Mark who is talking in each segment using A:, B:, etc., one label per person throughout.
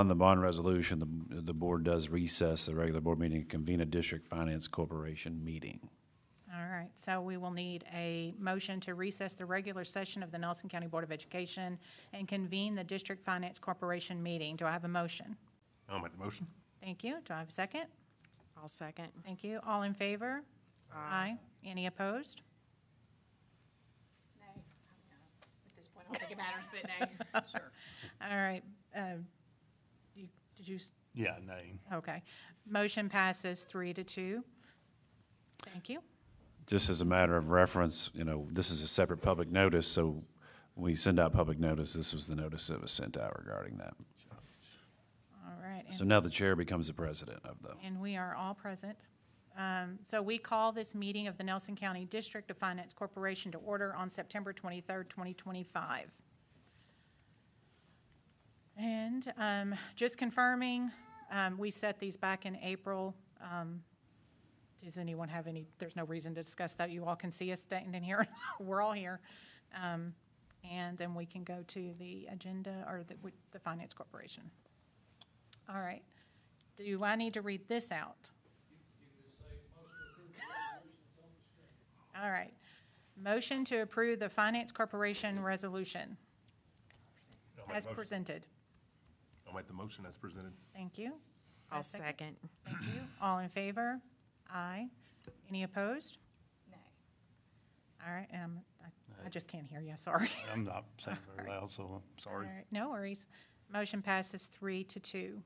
A: On the bond resolution, the, the board does recess the regular board meeting and convene a district finance corporation meeting.
B: All right, so we will need a motion to recess the regular session of the Nelson County Board of Education and convene the District Finance Corporation meeting. Do I have a motion?
C: I'll make the motion.
B: Thank you. Do I have a second?
D: I'll second.
B: Thank you. All in favor? Aye. Any opposed? Nay. At this point, I don't think it matters, but nay. All right, um, you- did you, s-
C: Yeah, nay.
B: okay. Motion passes three to two. Thank you.
A: Just as a matter of reference, you know, this is a separate public notice, so we send out public notice. This was the notice that was sent out regarding that.
B: All right. and-
A: So now the chair becomes the president of the.
B: And we are all present. Um, So we call this meeting of the Nelson County District of Finance Corporation to order on September 23rd, 2025. And um, just confirming, um, we set these back in April. Um, Does anyone have any, there's no reason to discuss that. You all can see us standing here. We're all here. Um, And then we can go to the agenda or the the Finance Corporation. All right. Do I need to read this out? All right. Motion to approve the Finance Corporation Resolution
C: I'll make
B: as
C: the motion.
B: presented.
C: I'll make the motion as presented.
B: Thank you.
D: I'll
B: A second.
D: second.
B: Thank you. All in favor? Aye. Any opposed? Nay. All right, um, I- I just can't hear you, sorry.
E: I'm not saying very loud, so I'm
B: All
E: sorry.
B: right, no worries. Motion passes three to two.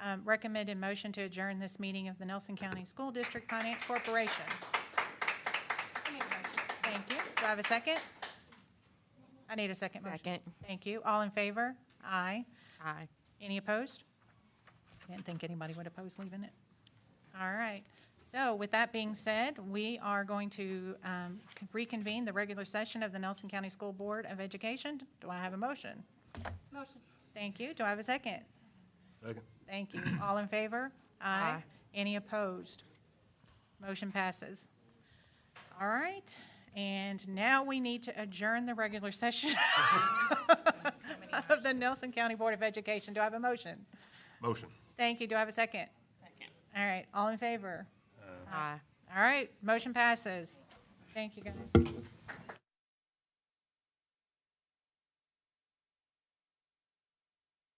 B: Um, Recommended motion to adjourn this meeting of the Nelson County School District Finance Corporation. Thank you. Do I have a second? I need a second motion.
D: Second.
B: Thank you. All in favor? Aye.
D: Aye.
B: Any opposed? I didn't think anybody would oppose leaving it. All right. So with that being said, we are going to um, reconvene the regular session of the Nelson County School Board of Education. Do I have a motion? Motion. Thank you. Do I have a second?
C: Second.
B: Thank you. All in favor?
D: Aye.
B: Any opposed? Motion passes. All right, and now we need to adjourn the regular session of the Nelson County Board of Education. Do I have a motion?
C: Motion.
B: Thank you. Do I have a second? Second. All right, all in favor?
D: Aye.
B: All right, motion passes. Thank you, guys.